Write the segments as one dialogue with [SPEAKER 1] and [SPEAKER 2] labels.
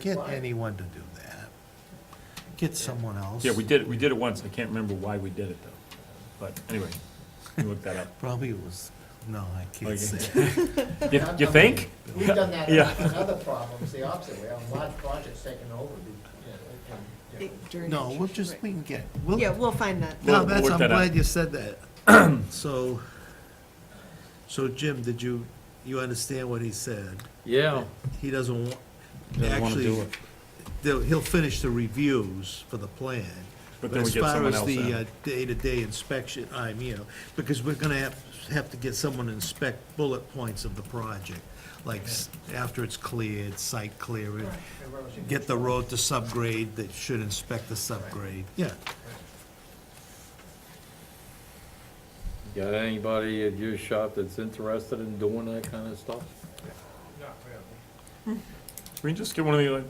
[SPEAKER 1] get anyone to do that. Get someone else.
[SPEAKER 2] Yeah, we did, it. we did it once, I can't remember why we did it though, but anyway, you look that up.
[SPEAKER 1] Probably it was, no, I
[SPEAKER 2] Okay.
[SPEAKER 1] can't say.
[SPEAKER 2] You, you think?
[SPEAKER 3] We've done that
[SPEAKER 2] Yeah.
[SPEAKER 3] on other problems, the opposite way, on large projects taken over, you know, and, you know,
[SPEAKER 4] During-
[SPEAKER 1] No, we'll just, we can get, we'll,
[SPEAKER 4] Yeah, we'll find that.
[SPEAKER 2] We'll-
[SPEAKER 1] no,
[SPEAKER 2] we'll
[SPEAKER 1] that's,
[SPEAKER 2] work
[SPEAKER 1] I'm
[SPEAKER 2] that out.
[SPEAKER 1] glad you said that. So, so Jim, did you, you understand what he said?
[SPEAKER 5] Yeah.
[SPEAKER 1] He doesn't want,
[SPEAKER 5] Doesn't wanna do
[SPEAKER 1] actually,
[SPEAKER 5] it.
[SPEAKER 1] they'll- he'll finish the reviews for the plan.
[SPEAKER 2] But then we get someone else
[SPEAKER 1] As far as
[SPEAKER 2] in.
[SPEAKER 1] the uh, day-to-day inspection, I'm, you know, because we're gonna have, have to get someone to inspect bullet points of the project, like s- after it's cleared, site clearing,
[SPEAKER 3] the roads and-
[SPEAKER 1] get the road to subgrade, that should inspect the subgrade, yeah.
[SPEAKER 5] Got anybody at your shop that's interested in doing that kind of stuff?
[SPEAKER 2] Can we just get one of the, like,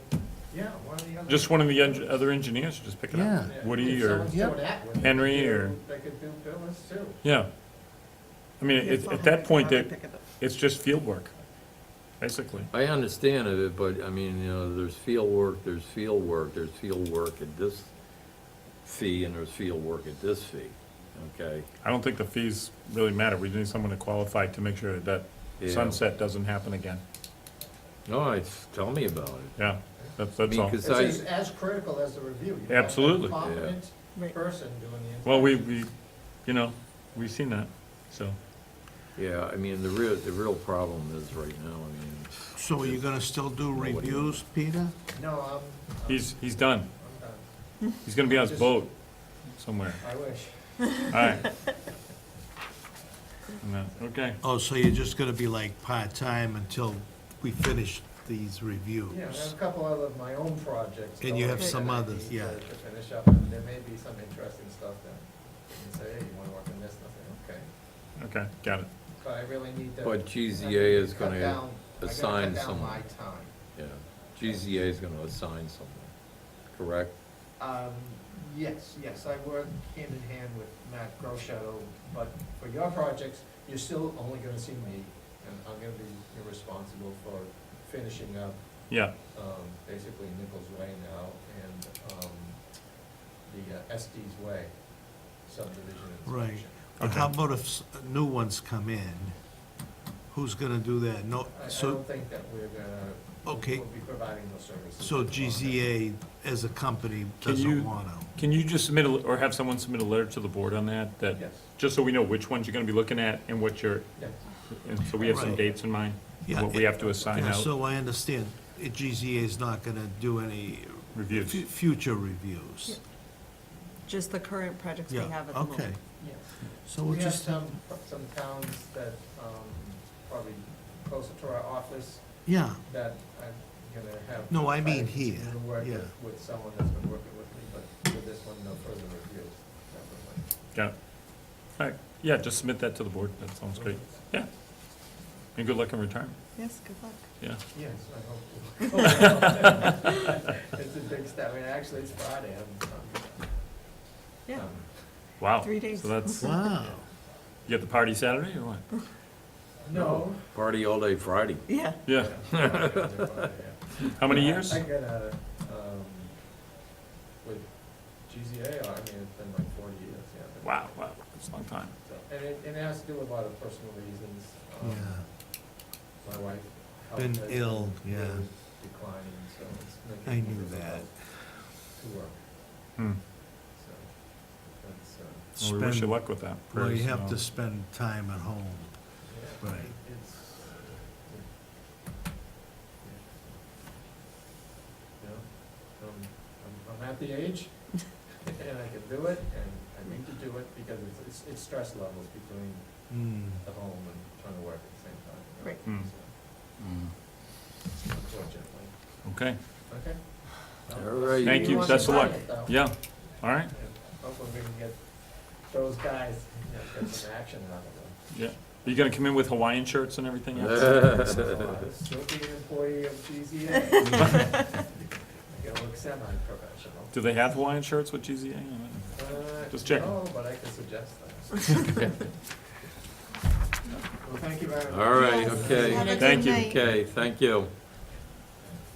[SPEAKER 3] Yeah, one of the other.
[SPEAKER 2] just one of the eng- other engineers to just pick it up?
[SPEAKER 1] Yeah.
[SPEAKER 2] Woody
[SPEAKER 3] If
[SPEAKER 2] or,
[SPEAKER 3] someone's
[SPEAKER 1] Yep.
[SPEAKER 3] doing that one, they
[SPEAKER 2] Henry
[SPEAKER 3] could do-
[SPEAKER 2] or-
[SPEAKER 3] They could do Billings too.
[SPEAKER 2] yeah. I mean,
[SPEAKER 4] Yeah,
[SPEAKER 2] it-
[SPEAKER 4] so
[SPEAKER 2] at
[SPEAKER 4] I'll
[SPEAKER 2] that point,
[SPEAKER 4] probably
[SPEAKER 2] it,
[SPEAKER 4] pick it up.
[SPEAKER 2] it's just field work, basically.
[SPEAKER 5] I understand of it, but I mean, you know, there's field work, there's field work, there's field work at this fee and there's field work at this fee, okay?
[SPEAKER 2] I don't think the fees really matter, we need someone to qualify to make sure that
[SPEAKER 5] Yeah.
[SPEAKER 2] sunset doesn't happen again.
[SPEAKER 5] No, it's, tell me about it.
[SPEAKER 2] Yeah, that's, that's all.
[SPEAKER 3] It's
[SPEAKER 5] Because- So I-
[SPEAKER 3] as, as critical as the review. You have to have a
[SPEAKER 2] Absolutely. Yeah.
[SPEAKER 3] Competent
[SPEAKER 4] Right.
[SPEAKER 3] person doing the.
[SPEAKER 2] Well, we, we, you know, we've seen that, so.
[SPEAKER 5] Yeah, I mean, the real, the real problem is right now, I mean,
[SPEAKER 1] So are you gonna still do reviews, Peter?
[SPEAKER 3] No, I'm, I'm
[SPEAKER 2] He's, he's done.
[SPEAKER 3] I'm done,
[SPEAKER 2] He's gonna be on his boat somewhere.
[SPEAKER 3] I wish.
[SPEAKER 2] All right. No, Okay,
[SPEAKER 1] Oh, so you're just gonna be like part-time until we finish these reviews?
[SPEAKER 3] Yeah, I have a couple other of my own projects.
[SPEAKER 1] And you have
[SPEAKER 3] going
[SPEAKER 1] some
[SPEAKER 3] that I
[SPEAKER 1] others,
[SPEAKER 3] need
[SPEAKER 1] yeah.
[SPEAKER 3] To to finish up, and there may be some interesting stuff then. And say, hey, you wanna work on this, nothing, okay.
[SPEAKER 2] okay, got it.
[SPEAKER 3] But I really need to.
[SPEAKER 5] But GZA
[SPEAKER 3] I need to
[SPEAKER 5] is
[SPEAKER 3] cut
[SPEAKER 5] gonna
[SPEAKER 3] down- I gotta
[SPEAKER 5] assign
[SPEAKER 3] Cut down
[SPEAKER 5] someone.
[SPEAKER 3] my time.
[SPEAKER 5] yeah, GZA is gonna assign someone, correct?
[SPEAKER 3] Um, yes, yes, I work hand in hand with Matt Groshato, but for your projects, you're still only gonna see me, and I'm gonna be responsible for finishing up,
[SPEAKER 2] Yeah,
[SPEAKER 3] um, basically Nichols Way now and, um, the uh, Estes Way subdivision
[SPEAKER 1] Right.
[SPEAKER 3] inspection.
[SPEAKER 1] But how
[SPEAKER 2] Okay.
[SPEAKER 1] about if s- new ones come in? Who's gonna do that? No,
[SPEAKER 3] I, I
[SPEAKER 1] so,
[SPEAKER 3] don't think that we're gonna, we'll
[SPEAKER 1] Okay.
[SPEAKER 3] be providing those services.
[SPEAKER 1] so GZA as a company
[SPEAKER 2] Can you-
[SPEAKER 1] doesn't wanna.
[SPEAKER 2] can you just submit, a or have someone submit a letter to the board on that, that,
[SPEAKER 3] Yes,
[SPEAKER 2] just so we know which ones you're gonna be looking at and what you're,
[SPEAKER 3] yes.
[SPEAKER 2] and so we have some
[SPEAKER 1] Right.
[SPEAKER 2] dates in mind?
[SPEAKER 1] Yeah,
[SPEAKER 2] What we have to assign
[SPEAKER 1] Yeah,
[SPEAKER 2] out,
[SPEAKER 1] So I understand, uh, GZA is not gonna do any
[SPEAKER 2] reviews.
[SPEAKER 1] fu- future reviews.
[SPEAKER 4] Just the current projects we
[SPEAKER 1] Yeah,
[SPEAKER 4] have at the
[SPEAKER 1] okay,
[SPEAKER 4] moment.
[SPEAKER 3] Yes.
[SPEAKER 1] so we'll
[SPEAKER 3] We have
[SPEAKER 1] just,
[SPEAKER 3] some, some towns that, um, probably closer to our office
[SPEAKER 1] yeah,
[SPEAKER 3] that I'm gonna have.
[SPEAKER 1] No, I mean
[SPEAKER 3] tried
[SPEAKER 1] here,
[SPEAKER 3] to work
[SPEAKER 1] yeah.
[SPEAKER 3] with- With someone that's been working with me, but with this one, no further reviews. definitely.
[SPEAKER 2] Got it. All right, yeah, just submit that to the board, that sounds great. Yeah. And good luck in retirement,
[SPEAKER 4] Yes, good luck.
[SPEAKER 2] yeah.
[SPEAKER 3] Yes, I hope to. It's a big step, I mean, actually, it's Friday, I'm, I'm.
[SPEAKER 4] Yeah,
[SPEAKER 3] um,
[SPEAKER 2] Wow.
[SPEAKER 4] Three days.
[SPEAKER 2] So that's, you
[SPEAKER 1] wow.
[SPEAKER 2] get the party Saturday or what?
[SPEAKER 3] No.
[SPEAKER 5] Party all day Friday.
[SPEAKER 4] yeah.
[SPEAKER 2] Yeah,
[SPEAKER 3] Yeah, I'm gonna do Friday, yeah.
[SPEAKER 2] how many
[SPEAKER 3] Yeah,
[SPEAKER 2] years?
[SPEAKER 3] I got out of, um, with GZA, I mean, it's been like forty years, yeah. but-
[SPEAKER 2] Wow, wow, that's a long time.
[SPEAKER 3] So, And it, and it has to do with a lot of personal reasons. Um,
[SPEAKER 1] Yeah,
[SPEAKER 3] My wife. health
[SPEAKER 1] Been
[SPEAKER 3] has
[SPEAKER 1] ill, yeah.
[SPEAKER 3] really Declining, so it's
[SPEAKER 1] I
[SPEAKER 3] making. it
[SPEAKER 1] knew
[SPEAKER 3] difficult
[SPEAKER 1] that.
[SPEAKER 3] To work,
[SPEAKER 2] Hmm.
[SPEAKER 3] so that's, uh,
[SPEAKER 2] Well, we wish you
[SPEAKER 1] Spend-
[SPEAKER 2] luck with that.
[SPEAKER 1] Well, you
[SPEAKER 2] Prayers,
[SPEAKER 1] have to
[SPEAKER 2] uh,
[SPEAKER 1] spend time at home.
[SPEAKER 3] yeah.
[SPEAKER 1] Right.
[SPEAKER 3] It's. You know, I'm, I'm, I'm at the age and I can do it and I need to do it because it's, it's, it's stress levels between
[SPEAKER 1] Hmm.
[SPEAKER 3] the home and trying to work at the same time. you know,
[SPEAKER 4] Right.
[SPEAKER 2] Hmm.
[SPEAKER 3] so, Unfortunately,
[SPEAKER 2] Okay,
[SPEAKER 3] okay?
[SPEAKER 5] All right.
[SPEAKER 2] thank you,
[SPEAKER 4] want
[SPEAKER 2] best of
[SPEAKER 4] to
[SPEAKER 2] luck.
[SPEAKER 4] try
[SPEAKER 2] Yeah, all right,
[SPEAKER 3] Hopefully we can get those guys, you know, get some action out of them.
[SPEAKER 2] yeah. Are you gonna come in with Hawaiian shirts and everything else?
[SPEAKER 3] Still be an employee of GZA. I gotta look semi-professional.
[SPEAKER 2] Do they have Hawaiian shirts with GZA?
[SPEAKER 3] Uh,
[SPEAKER 2] Just checking.
[SPEAKER 3] No, but I can suggest that. Well, thank you very much.
[SPEAKER 5] All right,
[SPEAKER 4] Yes.
[SPEAKER 5] okay.
[SPEAKER 4] Have a good
[SPEAKER 2] Thank you.
[SPEAKER 4] night.
[SPEAKER 5] Okay, thank you.